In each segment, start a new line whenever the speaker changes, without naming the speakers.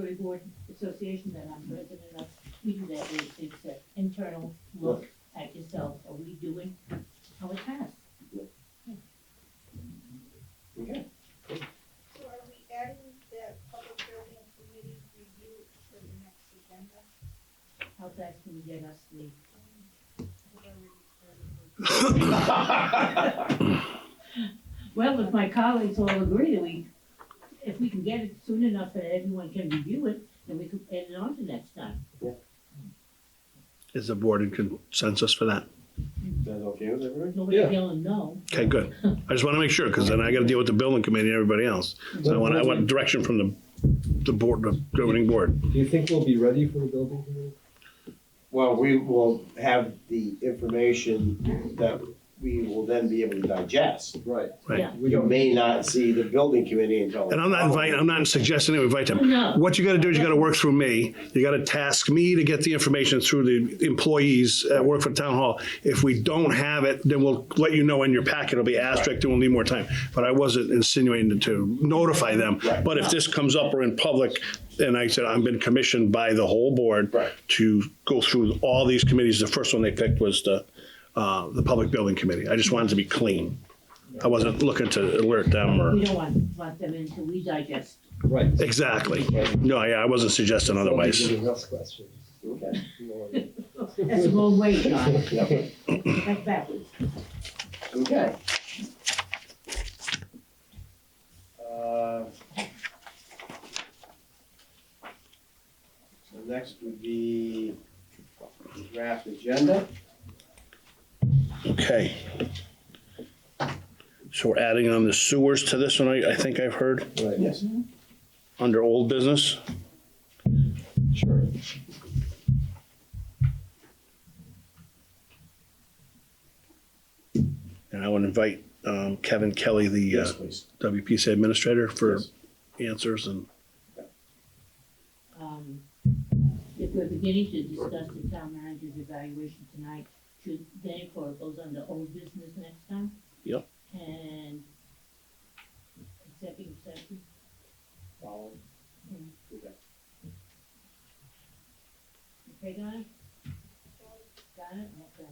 Library Board Association that I'm president of, we do that, we- it's an internal look at yourself, are we doing how it has?
Okay.
So are we adding the public building committee review for the next agenda?
How fast can you get us the,
We've already started.
well, if my colleagues all agree, that we, if we can get it soon enough that everyone can review it, then we could add it on to next time.
Is the board in consensus for that?
Sounds okay with everybody?
Nobody feeling no,
Okay, good. I just want to make sure, because then I got to deal with the building committee and everybody else. So I want, I want direction from the, the board, the governing board.
Do you think we'll be ready for the building committee?
Well, we will have the information that we will then be able to digest.
Right.
Right.
Yeah.
We
We
don't,
may not see the building committee until.
And I'm not inviting, I'm not suggesting that we invite them.
No.
What you got to do is you got to work through me. You got to task me to get the information through the employees at work for town hall. If we don't have it, then we'll let you know in your packet. It'll be asterisked and we'll need more time. But I wasn't insinuating to notify them.
Right.
But if this comes up or in public, and I said, I've been commissioned by the whole board
Right.
to go through all these committees. The first one they picked was the, uh, the Public Building Committee. I just wanted to be clean. I wasn't looking to alert them or.
we don't want, want them in until we digest.
right.
Exactly. No, yeah, I wasn't suggesting
Somebody's
otherwise.
giving us questions.
Okay.
That's the wrong way, John,
Yeah.
that's backwards.
Okay. Uh, So next would be the draft agenda.
Okay. So we're adding on the sewers to this one, I, I think I've heard,
Right,
Yes.
under old business.
sure.
And I would invite um, Kevin Kelly, the uh,
Yes, please.
WPC administrator, for
Yes.
answers and
um, if we're beginning to discuss the town manager's evaluation tonight, should therefore it goes under old business next time?
Yep.
And executive session,
Follow. Okay.
okay, guys? Got it, okay.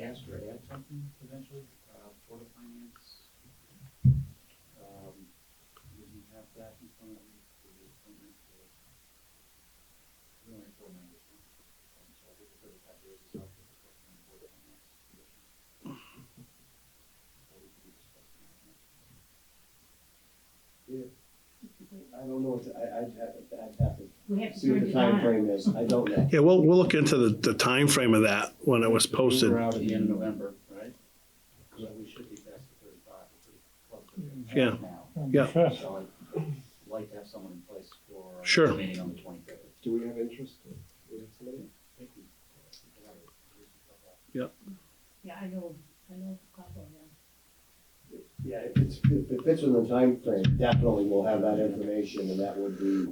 ask or add something potentially, uh, Board of Finance. Um, did you have that in front of you for the appointment for? We only have four members. huh? Um, So I think the third that is up for discussion on Board of Finance. position. Or we could be discussing that next.
I don't know, what to- I, I'd have, I'd have to
We have to
see what
turn
the
it
time
on.
frame is, I don't know.
yeah, we'll we'll look into the the time frame of that when it was posted.
We're out at the end of November, right? So we should be past the thirty-five, we're pretty close to it
Yeah.
now.
Yeah.
So I'd like to have someone in place for. uh,
Sure.
Meeting on the twenty-third.
Do we have interest? We have somebody?
Yeah, I know, I know a couple of them.
Yeah, if it's, if it fits in the timeframe, definitely we'll have that information, and that would be,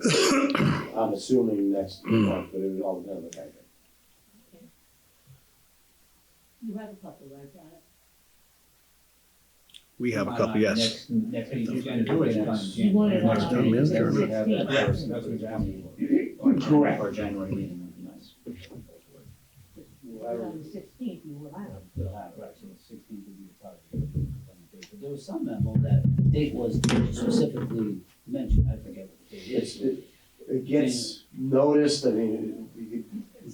I'm assuming next
Hmm.
month, but it would all depend on the timeframe.
You have a couple, right, John?
We have a couple, yes.
Next, next meeting.
He's gonna do it next-
You want it on
Next time,
January
yeah, sure.
We'd have that
16th,
first, that's what we're asking for. Or-
Correct.
Or January meeting would be nice.
Well, I
but on
would-
the sixteenth, you will have. it.
We'll have it, right, so the 16th would be the target date. But There was some memo that the date was specifically mentioned, I forget what the date
It's,
is.
it, it gets noticed, I mean, it- we could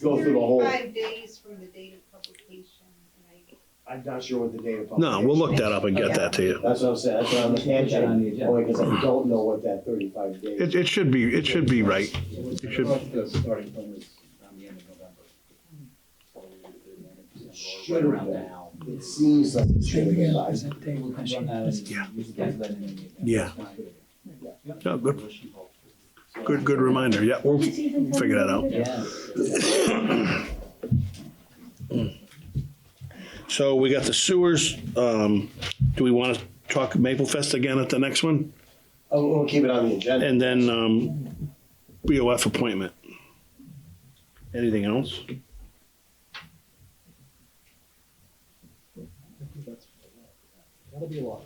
go through the whole,
Thirty-five days from the date of publication, and I,
I'm not sure what the date of
No,
publication.
we'll look that up and get that to you.
That's what I'm saying, that's what I'm
Put that on the
mentioning,
agenda.
only because I don't know what that thirty-five days.
It it should be, it should be right.
You
should-
The starting point was around the end of November. So we would do the end of December, or
Should
right around
have been.
now.
It seems like it's gonna get by.
We'll run that and
Yeah.
we can get that in the agenda.
Yeah.
Yeah.
Yeah, good. Good, good reminder. Yeah, we'll
It's even
figure that out.
Yeah.
So we got the sewers. Um, do we want to talk Maple Fest again at the next one?
Oh, we'll keep it on the agenda.
And then, um, BOF appointment. Anything else?
I think that's. Yeah, That'll be a lot.